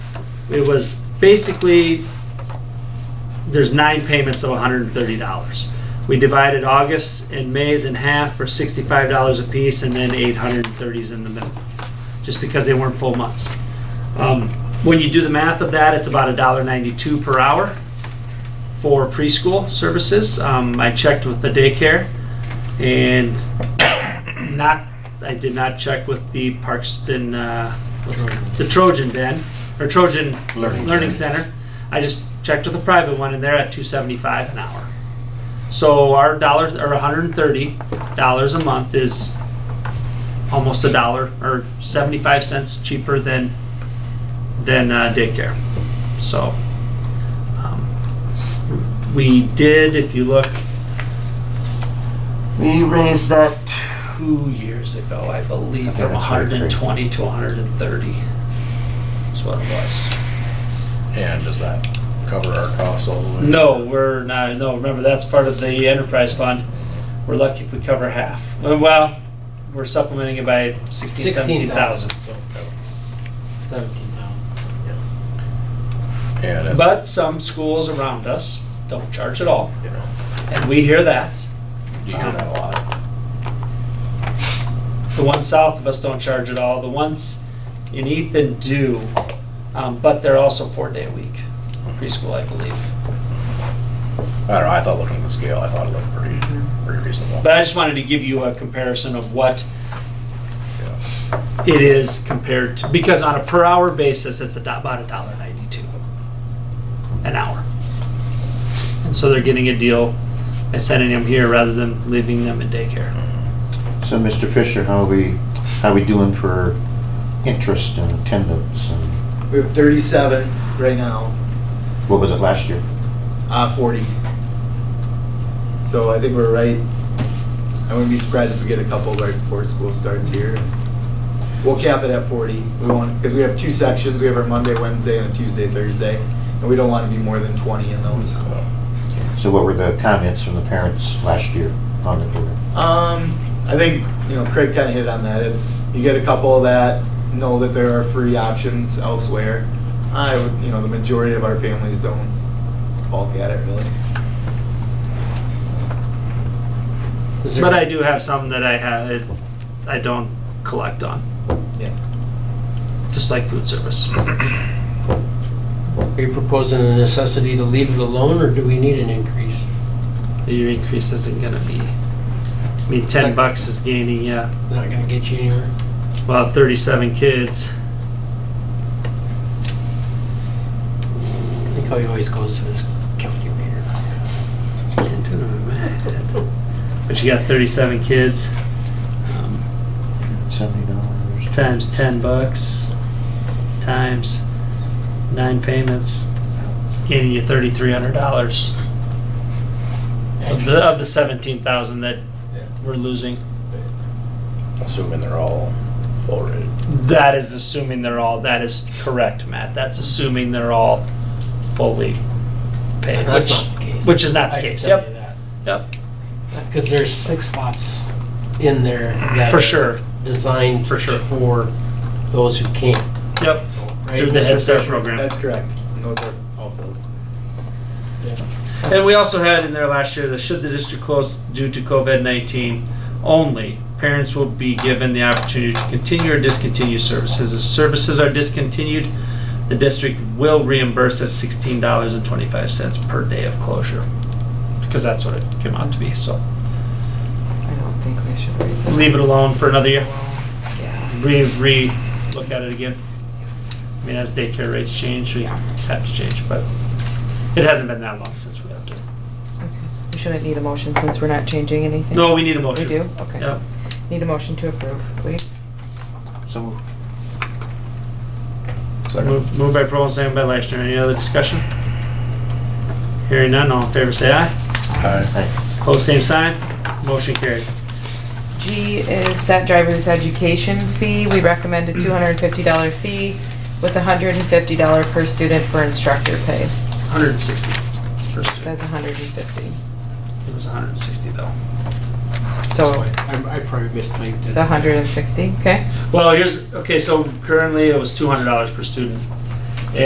It was basically, there's nine payments of hundred and thirty dollars. We divided August and May's in half for sixty-five dollars apiece, and then eight hundred and thirties in the middle, just because they weren't full months. Um, When you do the math of that, it's about a dollar ninety-two per hour for preschool services. Um, I checked with the daycare, and not, I did not check with the Parkston, uh, what's, the Trojan Den, or Trojan Learning Learning Center. I just checked with a private one and they're at two seventy-five an hour. So our dollars, or hundred and thirty dollars a month is almost a dollar or seventy-five cents cheaper than, than uh, daycare. So, um, we did, if you look, we raised that two years ago, I I believe, think from that's right, correct. 120 to 130. That's what it was. And does that cover our costs all the way? No, we're not, no, remember, that's part of the enterprise fund. We're lucky if we cover half. Well, Well, we're supplementing it by 16, 17,000. so. Seventeen thousand. And it's, But some schools around us don't charge at all, you know, and we hear that. you hear that a lot. The ones south of us don't charge at all. The ones in Ethan do, um, but they're also four-day week preschool, I believe. I don't know, I thought looking at the scale, I thought it looked pretty, pretty reasonable. But I just wanted to give you a comparison of what Yeah. it is compared to, because on a per-hour basis, it's a do- about a dollar ninety-two an hour. And so they're getting a deal by sending them here rather than leaving them in daycare. So, Mr. Fisher, how we, how we doing for interest and attendance? and We have 37 right now, What was it last year? uh, 40. So I think we're right. I wouldn't be surprised if we get a couple right before school starts here. We'll cap it at 40. We want, because we have two sections. We have our Monday, Wednesday, and a Tuesday, Thursday. And we don't want to be more than 20 in those. So what were the comments from the parents last year on the program? Um, I think, you know, Craig kind of hit on that. It's, you get a couple that know that there are free options elsewhere. I would, you know, the majority of our families don't balk at it really. Is there- But I do have some that I had, I don't collect on, Yeah. just like food service. Are you proposing a necessity to leave it alone, or do we need an increase? your increase isn't gonna be, I mean, ten bucks is gaining, yeah, Not gonna get you anywhere. well, thirty-seven kids. I think how he always goes to his calculator. Can't do the math. But you got thirty-seven kids, um, Seventy dollars? times ten bucks, times nine payments, it's gaining you thirty-three hundred dollars of the, of the seventeen thousand that we're losing. Assuming they're all full rated. That is assuming they're all, that is correct, Matt. That's assuming they're all fully paid, That's which, not the case. which is not I the can case. tell you Yep, that. yep, Because there's six slots in there that for are sure, Designed For sure. for those who can't. yep. So, right, Through the Mr. Head Start Fisher? program. That's correct. And those are all filled. And we also had in there last year that should the district close due to COVID-19 only, parents will be given the opportunity to continue or discontinue services. If services are discontinued, the district will reimburse at $16.25 per day of closure, because that's what it came out to be, so. I don't think we should raise it. leave it alone for another year, Yeah. re, re, look at it again. I mean, as daycare rates change, we have to change, but it hasn't been that long since we have to. Okay. We shouldn't need a motion since we're not changing anything. No, we need a motion. We do? Okay. Yep. Need a motion to approve, please. So moved. Second. Move moved by Pearl, second by Leishner. Any other discussion? Hearing none, all in favor say aye. Aye. Aye. Close, same sign. Motion carried. G is set driver's education fee. We recommend a $250 fee with $150 per student for instructor pay. 160. First, It it says 150. was 160 though. So I I probably mistyped it. it's 160, okay? Well, here's, okay, so currently it was $200 per student